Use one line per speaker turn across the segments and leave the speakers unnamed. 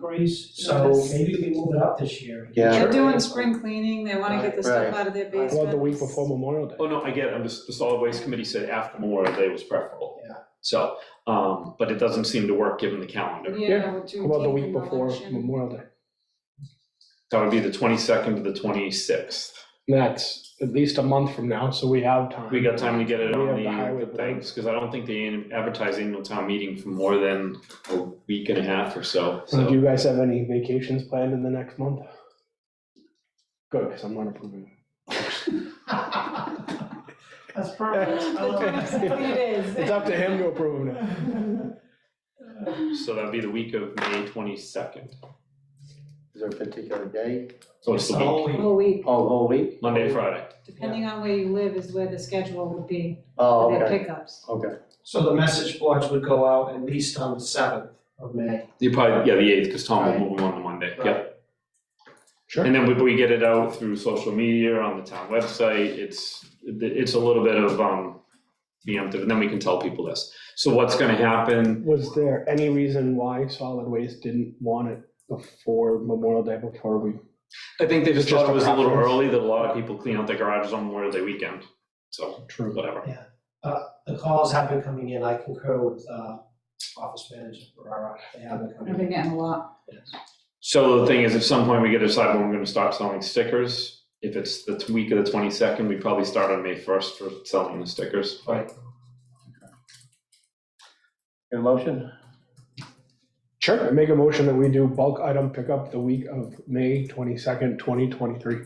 inquiries, so
Yes.
maybe we can move it up this year.
Yeah.
They're doing spring cleaning, they wanna get the stuff
Right.
out of their
Well,
basements.
Well, the week before Memorial Day.
Oh, no, I get it, I'm just, the solid waste committee said after Memorial Day was preferable.
Yeah.
So, um, but it doesn't seem to work given the calendar.
Yeah,
Yeah.
with
How about the
Juneteenth
week
and
before
election.
Memorial Day?
That would be the twenty-second to the twenty-sixth.
And That's at least a month from now, so we have time.
We got time to get it
We
on
have the highway
the, the
plan.
things, because I don't think they advertise annual town meeting for more than a week and a half or so,
So do
so.
you guys have any vacations planned in the next month? Good, because I'm not approving.
That's perfect, I love
The
it.
23 days.
It's up to him to approve it.
So that'd be the week of May twenty-second.
Is there a particular day?
So it's the week,
Whole week,
Oh, whole week?
Monday to Friday.
depending on where you live is where the schedule would be
Oh,
for their
okay,
pickups.
okay.
So the message boards would go out at least on the seventh of May.
You probably, yeah, the eighth, because Tom will
Right.
move them on the Monday,
Right.
yeah.
Sure.
And then we, we get it out through social media, on the town website, it's, it's a little bit of, um, preemptive, and then we can tell people this. So what's gonna happen,
Was there any reason why solid waste didn't want it before Memorial Day, before we?
I think they just
Just
thought it was a little
preference.
early, that a lot of people clean out their garages on Memorial Day weekend, so,
True.
whatever.
The calls have been coming in, I concur with, uh, Office Manager Ferrara, they have been
I've
coming
been
in.
getting a lot.
So the thing is, at some point, we get to decide when we're gonna start selling stickers. If it's the t- week of the twenty-second, we probably start on May first for selling the stickers.
Right,
Your motion?
Sure, I make a motion that we do bulk item pickup the week of May twenty-second, twenty twenty-three.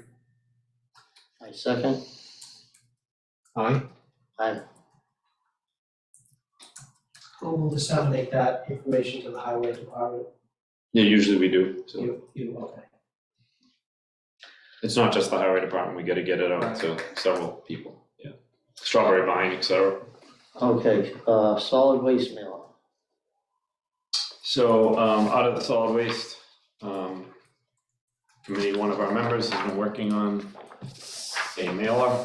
I second.
Aye.
Aye.
who will disseminate that information to the highway department?
Yeah, usually we do, so.
You, you, okay.
It's not just the highway department, we gotta get it out to several people, yeah. Strawberry vine, et cetera.
Okay, uh, solid waste mail.
So, um, out of the solid waste, um, committee, one of our members has been working on a mailer.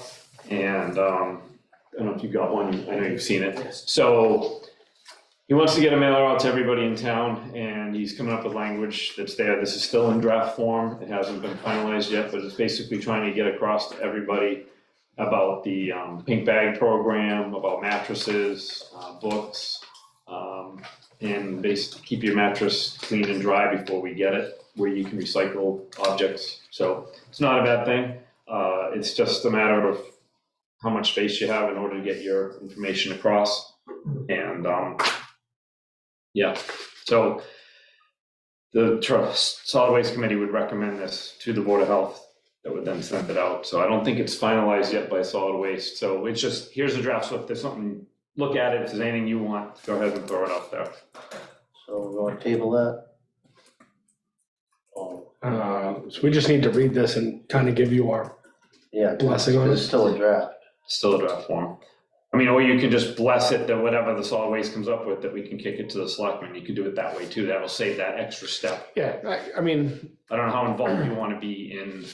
And, um, I don't know if you got one, I know you've seen it.
Yes.
So he wants to get a mailer out to everybody in town and he's coming up with language that's there. This is still in draft form. It hasn't been finalized yet, but it's basically trying to get across to everybody about the um, pink bag program, about mattresses, uh, books. um, And basically keep your mattress clean and dry before we get it, where you can recycle objects. So it's not a bad thing. Uh, It's just a matter of how much space you have in order to get your information across. And, um, yeah, so the tr- solid waste committee would recommend this to the board of health that would then send it out. So I don't think it's finalized yet by solid waste. So it's just, here's the draft. So if there's something, look at it. If there's anything you want, go ahead and throw it out there.
So we're going to table that. Oh,
Um,
Uh, So we just need to read this and kind of give you our
Yeah,
blessing on
it's
it.
still a draft.
Still a draft form. I mean, or you can just bless it that whatever the solid waste comes up with, that we can kick it to the selectmen. You can do it that way too. That'll save that extra step.
Yeah, I, I mean,
I don't know how involved you want to be in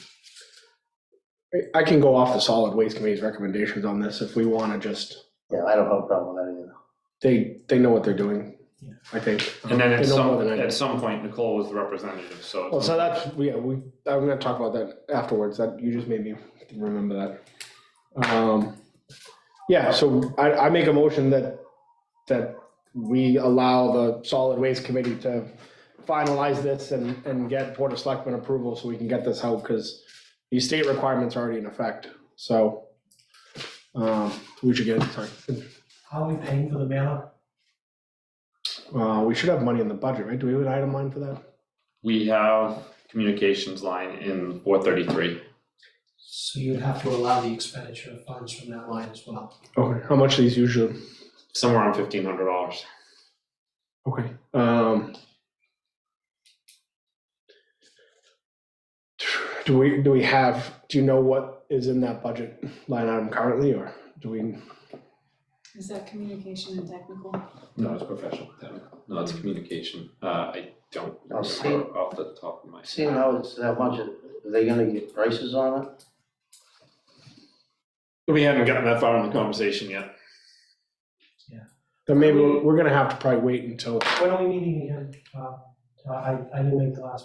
I- I can go off the solid waste committee's recommendations on this if we want to just,
Yeah, I don't have a problem with that either.
they, they know what they're doing,
Yeah.
I think.
And then at
They know more
some,
than I do.
at some point, Nicole was the representative, so.
Well, so that's, yeah, we, I'm gonna talk about that afterwards, that, you just made me remember that. Um, Yeah, so I, I make a motion that, that we allow the solid waste committee to finalize this and, and get Board of Selectmen approval so we can get this out, because the state requirement's already in effect, so um, we should get, it, sorry,
How are we paying for the mailer?
Uh, we should have money in the budget, right? Do we have an item line for that?
We have communications line in four thirty-three.
So you'd have to allow the expenditure of funds from that line as well.
Okay, how much are these usually?
Somewhere around fifteen hundred dollars.
Okay, um. Do we, do we have, do you know what is in that budget line item currently, or do we,
Is that communication and technical?
No, it's professional. No, it's communication. Uh, I don't
I'll see.
remember off the top of my head.
Seeing how it's that much, are they going to get prices on it?
We haven't gotten that far in the conversation yet.
then maybe
We-
we're gonna have to probably wait until,
When are we meeting again, uh, I, I didn't make the last